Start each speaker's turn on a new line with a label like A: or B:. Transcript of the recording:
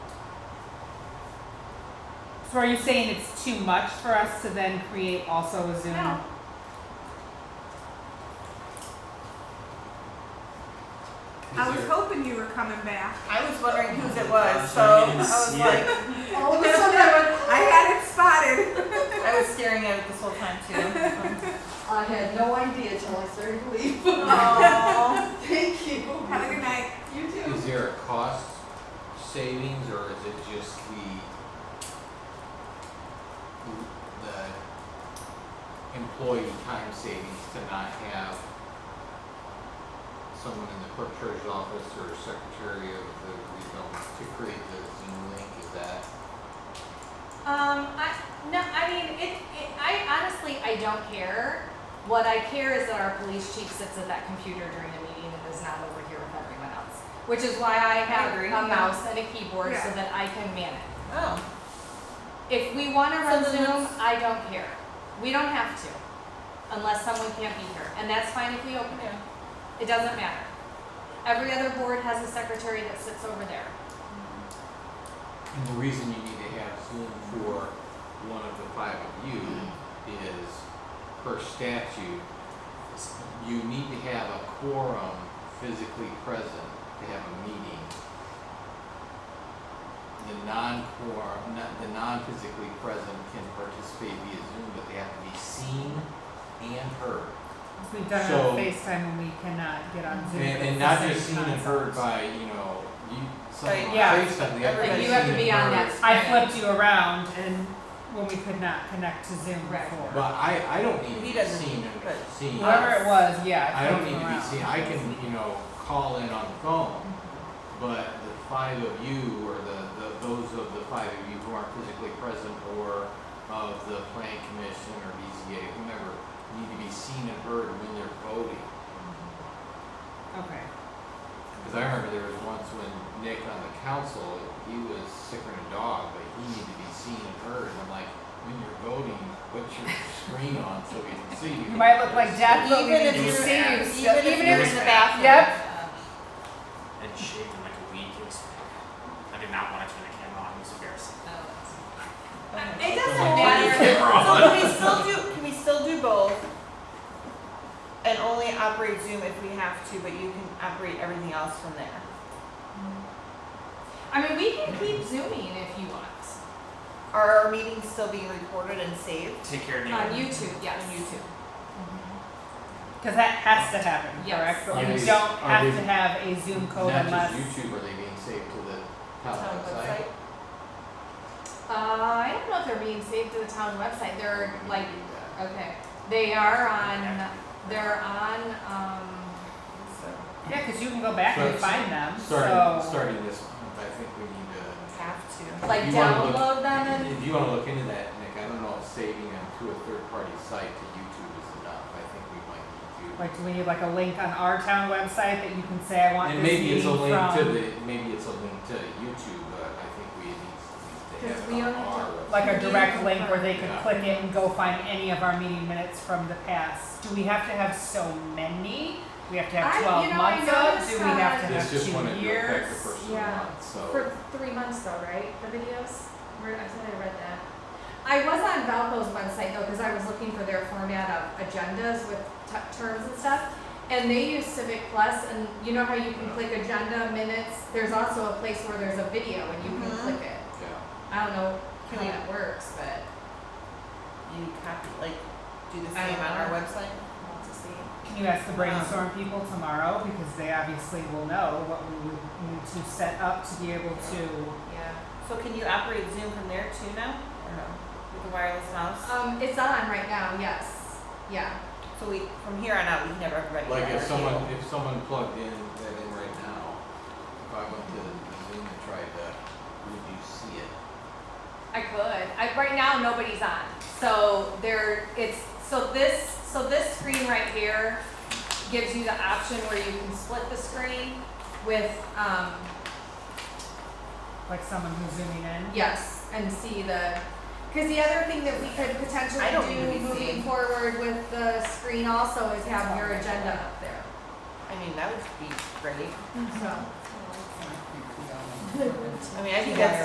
A: So are you saying it's too much for us to then create also a Zoom?
B: No. I was hoping you were coming back.
C: I was wondering whose it was,
D: Gosh,
C: so
D: I
C: I
D: didn't
C: was
D: see
C: like,
D: it.
B: All of a sudden, I went, I had it spotted.
C: I was staring at it this whole time too. Um,
E: I had no idea till I started to leave.
C: Oh,
E: Thank you.
B: Have a good night.
E: You too.
D: Is there a cost savings or is it just the the employee time savings to not have someone in the clerk treasurer's office or secretary of the regional to create the Zoom link? Is that
F: Um, I, no, I mean, it, it, I honestly, I don't care. What I care is that our police chief sits at that computer during the meeting and is not over here with everyone else. Which is why I have
C: agree.
F: a mouse and a keyboard so
B: Yeah.
F: that I can man it.
C: oh,
F: If we
C: So
F: wanna run
C: then
F: Zoom,
C: it's-
F: I don't care. We don't have to, unless someone can't be here, and that's fine if we open it.
C: yeah.
F: It doesn't matter. Every other board has a secretary that sits over there.
D: And the reason you need to have Zoom for one of the five of you is per statute, s- you need to have a quorum physically present to have a meeting. The non-quorum, not, the non-physically present can participate via Zoom, but they have to be seen and heard.
A: Because We've done it
D: So-
A: on FaceTime when we cannot get on Zoom.
D: And,
A: but it's
D: and
A: the
D: not
A: same
D: just seen and heard
A: concept.
D: by, you know, you, someone on
A: yeah,
D: FaceTime, they have to be seen and heard.
C: everybody.
F: Like, you have to be on that
A: I flipped you around and when we could not connect to Zoom
F: Right.
A: before.
D: But I, I don't need
C: He
D: to be
C: doesn't
D: seen,
C: need to, but-
D: seen.
A: Whoever it was, yeah.
D: I don't need to be
A: flipped you
D: seen,
A: around.
D: I can, you know, call in on the phone, but the five of you, or the, the, those of the five of you who aren't physically present, or of the planning commission, or BZA, whomever, need to be seen and heard when they're voting.
A: Okay.
D: Cause I remember there was once when Nick on the council, he was sicker than a dog, but he needed to be seen and heard, and I'm like, when you're voting, put your screen on so we can see you.
A: You might look like Jackie, but we need
C: Even
A: to
C: if you're,
A: see you still,
C: even if
A: even
C: you're
A: if,
C: in the bathroom.
A: yep,
G: and shaved in like a week. It was, I did not want to turn the camera on. It was
F: Oh,
G: embarrassing.
C: It
D: Oh,
C: doesn't
F: yeah.
C: matter.
G: Camera
C: So
G: on.
C: can we still do, can we still do both? And only operate Zoom if we have to, but you can operate everything else from there.
F: I mean, we can keep zooming if you want,
C: Are our meetings still being recorded and saved?
G: Take care of
F: on
G: Nick.
F: YouTube, yes.
C: On YouTube.
A: cause that has to happen,
F: Yes.
A: correct? But
D: Yeah,
A: we
D: they-
A: don't
D: are
A: have
D: they-
A: to have a Zoom code
D: Not
A: unless.
D: just YouTube, are they being saved to the town
C: Town
D: Oh, website?
C: website?
F: Uh, I don't know if they're being saved to the town website, they're like,
D: Do that.
F: okay, they are on, they're on, um,
C: So,
A: Yeah, cause you can go back and
D: Start-
A: find them, so.
D: Starting, starting this month, I think we need to.
C: Have to.
F: like
D: You wanna look-
F: download them and,
D: If you wanna look into that, Nick, I don't know if saving them to a third-party site to YouTube is enough, I think we might need to.
A: Like, do we need like a link on our town website that you can say, I want
D: And
A: this
D: maybe
A: meeting
D: it's a
A: from?
D: link to the, maybe it's a link to YouTube, but I think we need to- need to
F: Because
D: have
F: we
D: it on
F: don't have
D: our
F: to-
D: website.
A: Like a direct link where they could
D: Yeah.
A: click it and go find any of our meeting minutes from the past. Do we have to have so many? We have to
F: I-
A: have
F: you
A: twelve
F: know, I
A: months of, do
F: noticed uh,
A: we have to
F: that-
A: have
D: This
A: two years?
D: just wanted to affect the first of the
F: Yeah.
D: month, so.
F: for three months though, right, the videos? Where, I thought I read that. I was on Valpo's website though, cause I was looking for their format of agendas with t- terms and stuff. And they use Civic Plus and you know how you can
D: Yeah.
F: click agenda, minutes, there's also a place where there's a video and you can
C: Mhm.
F: click it.
D: Yeah,
F: I don't know
C: Can
F: how
C: we-
F: that works, but
C: You copy, like, do the
F: I
C: same
F: don't
C: on our
F: know.
C: website?
F: we'll have to see.
A: Can you ask the brainstorm people tomorrow, because they obviously will know what we would need to set up to be able to,
F: Yeah.
C: So can you operate Zoom from there too now? Or no? With the wireless mouse?
F: Um, it's on right now, yes. Yeah.
C: Uh, So we, from here on out, we can have everybody.
D: like
C: at
D: if
C: our
D: someone,
C: table.
D: if someone plugged in, that in right now, if I went to Zoom and tried to, would you see it?
F: I could. I, right now, nobody's on. So there, it's, so this, so this screen right here gives you the option where you can split the screen with, um,
A: like someone who's zooming in?
F: yes, and see the, because the other thing that we could potentially
C: I don't
F: do
C: really see.
F: moving forward with the screen also is have your agenda up there,
C: I mean, that would be great.
F: so.
C: I mean, I think
A: Yeah.
C: that's